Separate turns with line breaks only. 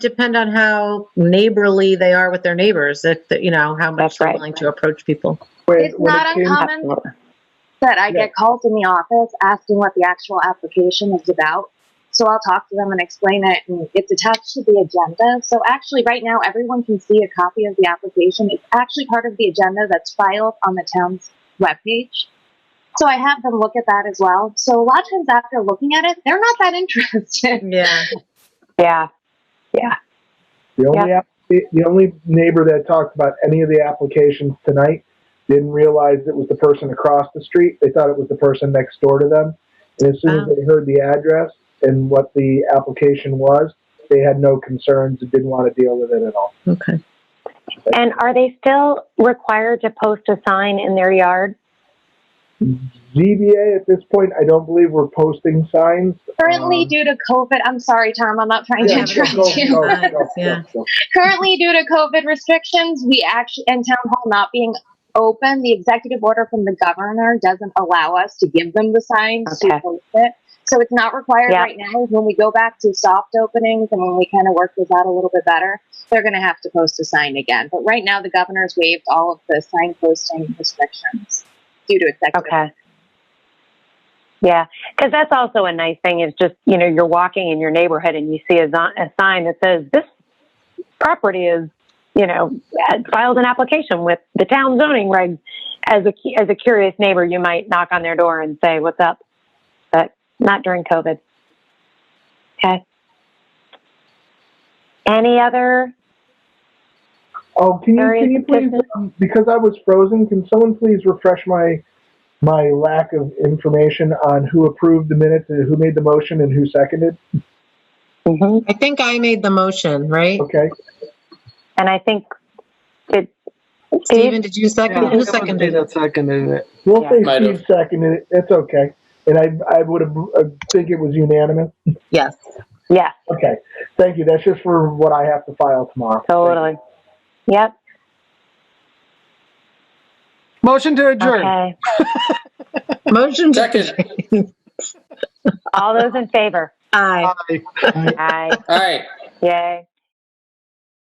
depend on how neighborly they are with their neighbors, if, that, you know, how much
That's
they're
right.
willing to approach people.
When-
It's
when it
not
came-
uncommon.
Absolutely.
that I
Yeah.
get called in the office asking what the actual application is about. So I'll talk to them and explain it, and it's attached to the agenda. So actually, right now, everyone can see a copy of the application. It's actually part of the agenda that's filed on the town's webpage. So I have them look at that as well. So a lot of times after looking at it, they're not that interested.
Yeah.
Yeah,
The only, app- the the only neighbor that talked about any of the applications tonight didn't realize it was the person across the street. They thought it was the person next door to them. And as soon as
Oh.
they heard the address and what the application was, they had no concerns and didn't want to deal with it at all.
Okay.
And are they still required to post a sign in their yard?
ZBA at this point, I don't believe we're posting signs.
Currently,
Um,
due to COVID, I'm sorry, Tom, I'm not trying to
Yeah,
interrupt
go,
you.
go. Yeah.
currently due to covid restrictions we actually and town hall not being open the executive order from the governor doesn't allow us to give them the signs
Okay.
to post it so it's not required
Yeah.
right now when we go back to soft openings and when we kind of work this out a little bit better they're going to have to post a sign again but right now the governor's waived all of the sign posting restrictions due to executive
okay. Yeah, because that's also a nice thing is just, you know, you're walking in your neighborhood and you see a, zo- a sign that says this property is, you know, had filed an application with the town zoning regs. As a, cu- as a curious neighbor, you might knock on their door and say, what's up? But not during COVID. Okay. Any other?
Oh, can you,
Various
can you please,
business-
um, because I was frozen, can someone please refresh my, my lack of information on who approved the minutes and who made the motion and who seconded?
Mhm.
I think I made the motion, right?
Okay.
And I think it,
Steven, did you second? Who seconded it?
That seconded it.
We'll say
Might
Steve seconded it. It's okay. And I, I would have, uh, think it was unanimous.
Yes.
yes,
Okay. Thank you. That's just for what I have to file tomorrow.
totally. Yep.
Motion to adjourn.
Okay.
Motion to
Second.
All those in favor?
aye.
Aye.
Aye.
All right.
Yay.